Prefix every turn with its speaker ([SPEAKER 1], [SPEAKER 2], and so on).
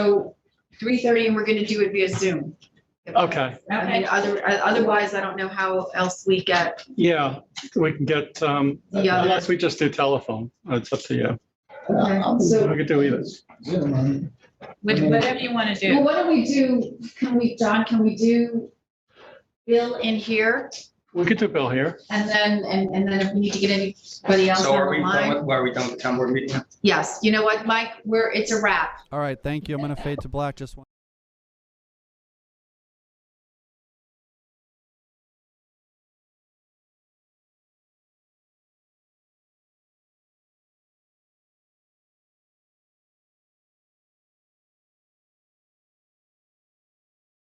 [SPEAKER 1] So three thirty, and we're gonna do it via Zoom.
[SPEAKER 2] Okay,
[SPEAKER 1] I mean, other, otherwise, I don't know how else we get,
[SPEAKER 2] yeah, we can get, um,
[SPEAKER 1] Yeah.
[SPEAKER 2] unless we just do telephone, Uh, it's up to you.
[SPEAKER 1] Okay,
[SPEAKER 3] I'll
[SPEAKER 2] We
[SPEAKER 1] so-
[SPEAKER 2] could do either.
[SPEAKER 3] Zoom, um,
[SPEAKER 4] What- Whatever you want to
[SPEAKER 1] well,
[SPEAKER 4] do.
[SPEAKER 1] what do we do, can we, John, can we do Bill in here?
[SPEAKER 2] We could do Bill here.
[SPEAKER 1] And then, and, and then if we need to get anybody else
[SPEAKER 5] So are
[SPEAKER 1] on the
[SPEAKER 5] we,
[SPEAKER 1] line?
[SPEAKER 5] done with- are we done with town board meeting?
[SPEAKER 1] Yes, you know what, Mike, we're, it's a wrap.
[SPEAKER 6] All right, thank you. I'm going to fade to black just one.